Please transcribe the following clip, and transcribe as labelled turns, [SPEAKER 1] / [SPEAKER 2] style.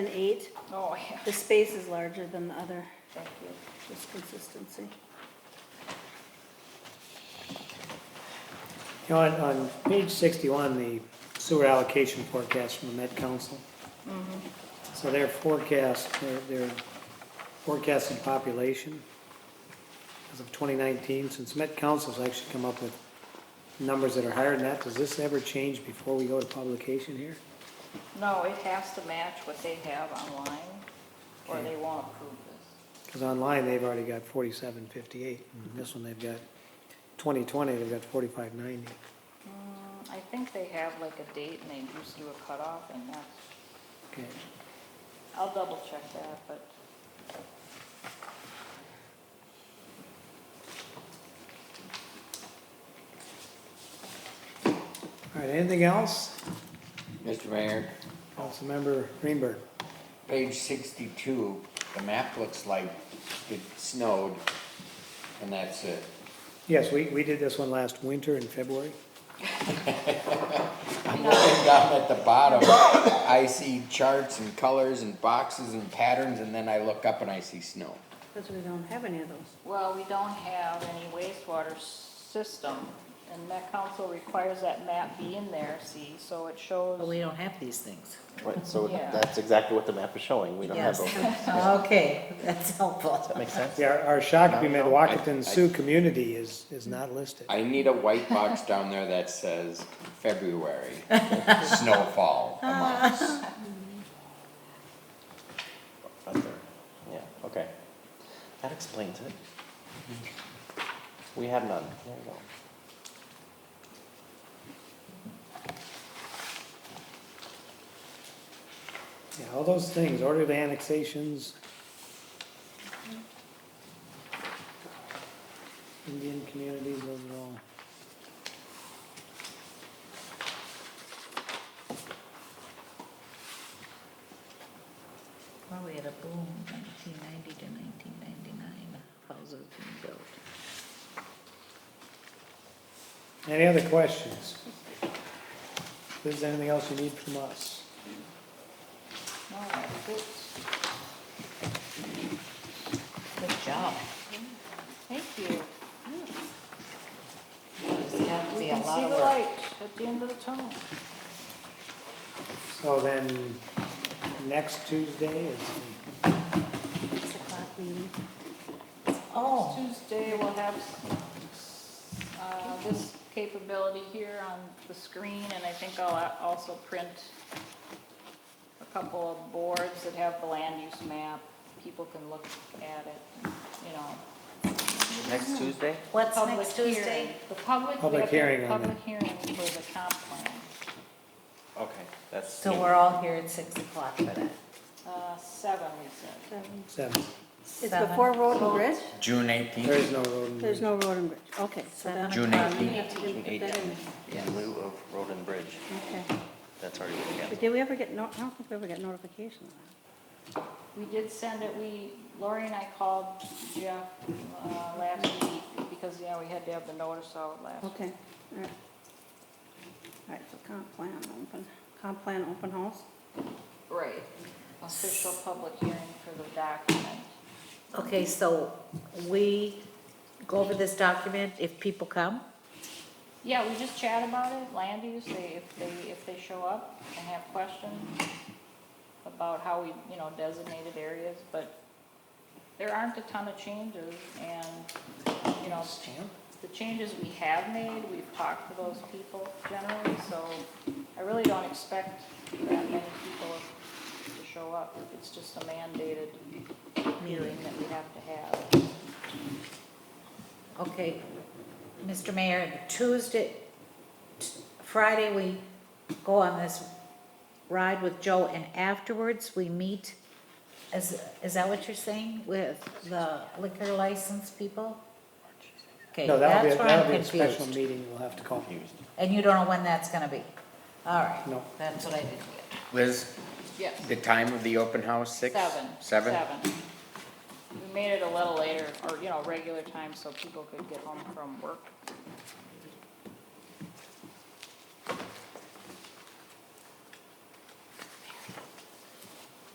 [SPEAKER 1] and eight,
[SPEAKER 2] Oh, yeah.
[SPEAKER 1] the space is larger than the other,
[SPEAKER 2] Thank you.
[SPEAKER 1] just consistency.
[SPEAKER 3] You know, on, on page sixty-one, the sewer allocation forecast from the Met Council. So their forecast, their, their forecasted population as of twenty nineteen, since Met Council's actually come up with numbers that are higher than that, does this ever change before we go to publication here?
[SPEAKER 2] No, it has to match what they have online, or they won't approve this.
[SPEAKER 3] Because online, they've already got forty-seven fifty-eight, and this one, they've got twenty twenty, they've got forty-five ninety.
[SPEAKER 2] Mm, I think they have like a date and they just do a cutoff and that's,
[SPEAKER 3] Okay,
[SPEAKER 2] I'll double check that, but
[SPEAKER 3] all right, anything else?
[SPEAKER 4] Mr. Mayor,
[SPEAKER 3] Councilmember Greenberg?
[SPEAKER 4] page sixty-two, the map looks like it snowed, and that's it.
[SPEAKER 3] Yes, we, we did this one last winter in February.
[SPEAKER 4] I'm looking down at the bottom, I see charts and colors and boxes and patterns, and then I look up and I see snow.
[SPEAKER 1] Because we don't have any of those.
[SPEAKER 2] Well, we don't have any wastewater system, and Met Council requires that map be in there, see, so it
[SPEAKER 5] But we
[SPEAKER 2] shows.
[SPEAKER 5] don't have these things.
[SPEAKER 6] Right, so
[SPEAKER 2] Yeah.
[SPEAKER 6] that's exactly what the map is showing, we don't have
[SPEAKER 5] Yes,
[SPEAKER 6] those.
[SPEAKER 5] okay, that's helpful.
[SPEAKER 6] That makes sense?
[SPEAKER 3] Yeah, our- our Shakopee Mid-Wacaton
[SPEAKER 4] I- I-
[SPEAKER 3] Sioux community is, is not listed.
[SPEAKER 4] I need a white box down there that says February, snowfall amounts.
[SPEAKER 6] Up there. Yeah, okay. That explains it. We have none, there you go.
[SPEAKER 3] Yeah, all those things, ordered annexations. Indian communities, those are all.
[SPEAKER 5] Well, we had a boom, nineteen ninety to nineteen ninety-nine, houses being built.
[SPEAKER 3] Any other questions? If there's anything else you need from us.
[SPEAKER 2] No, it's good.
[SPEAKER 5] Good job.
[SPEAKER 2] Thank you.
[SPEAKER 5] It's got to
[SPEAKER 2] We
[SPEAKER 5] be a
[SPEAKER 2] can see
[SPEAKER 5] lot
[SPEAKER 2] the
[SPEAKER 5] of work.
[SPEAKER 2] light at the end of the tunnel.
[SPEAKER 3] So then, next Tuesday is, the-
[SPEAKER 1] Six o'clock meeting.
[SPEAKER 5] Oh,
[SPEAKER 2] Tuesday, we'll have, uh, this capability here on the screen, and I think I'll also print a couple of boards that have the land use map, people can look at it, you know.
[SPEAKER 6] Next Tuesday?
[SPEAKER 5] what's
[SPEAKER 2] Public
[SPEAKER 5] next
[SPEAKER 2] hearing.
[SPEAKER 5] Tuesday?
[SPEAKER 2] The public. we
[SPEAKER 3] Public
[SPEAKER 2] have to have
[SPEAKER 3] hearing on
[SPEAKER 2] Public hearing for the comp plan,
[SPEAKER 6] Okay, that's.
[SPEAKER 5] So we're all here at six o'clock for that.
[SPEAKER 2] uh, seven, we said.
[SPEAKER 1] Seven.
[SPEAKER 3] seven.
[SPEAKER 1] It's
[SPEAKER 5] Seven.
[SPEAKER 1] before Road and Bridge?
[SPEAKER 4] June
[SPEAKER 3] there is
[SPEAKER 4] eighteenth,
[SPEAKER 3] no road. and-
[SPEAKER 1] There's no Road and Bridge, okay. so
[SPEAKER 5] Seven
[SPEAKER 1] that-
[SPEAKER 4] June
[SPEAKER 1] um,
[SPEAKER 4] 18.
[SPEAKER 1] we have to
[SPEAKER 6] June
[SPEAKER 1] put that
[SPEAKER 6] 18.
[SPEAKER 1] in.
[SPEAKER 6] In lieu of road and bridge,
[SPEAKER 1] Okay.
[SPEAKER 6] that's already what we have.
[SPEAKER 1] But did we ever get, no, I don't think we ever got notification of that.
[SPEAKER 2] We did send it, we, Lori and I called Jeff, uh, last week, because, yeah, we had to have the notice out last
[SPEAKER 1] Okay, all right. All right, so comp plan open, comp plan open house?
[SPEAKER 2] Right, official public hearing for the document.
[SPEAKER 5] Okay, so we go over this document if people come?
[SPEAKER 2] Yeah, we just chat about it, land use, they, if they, if they show up and have questions about how we, you know, designated areas, but there aren't a ton of changes, and, you know, the changes we have made, we've talked to those people generally, so I really don't expect that many people to show up. It's just a mandated meeting that we have to have.
[SPEAKER 5] Okay, Mr. Mayor, Tuesday, t- Friday, we go on this ride with Joe, and afterwards, we meet, is, is that what you're saying, with the liquor license people? Okay,
[SPEAKER 3] No, that'll be,
[SPEAKER 5] that's
[SPEAKER 3] a-
[SPEAKER 5] where
[SPEAKER 3] that'll be
[SPEAKER 5] I'm
[SPEAKER 3] a special
[SPEAKER 5] confused,
[SPEAKER 3] meeting we'll have to call.
[SPEAKER 5] and you don't know when that's gonna be? All right.
[SPEAKER 3] No.
[SPEAKER 5] That's what I didn't get.
[SPEAKER 4] Liz,
[SPEAKER 2] Yes.
[SPEAKER 4] the time of the open house, six?
[SPEAKER 2] Seven.
[SPEAKER 4] Seven?
[SPEAKER 2] We made it a little later, or, you know, regular time, so people could get home from work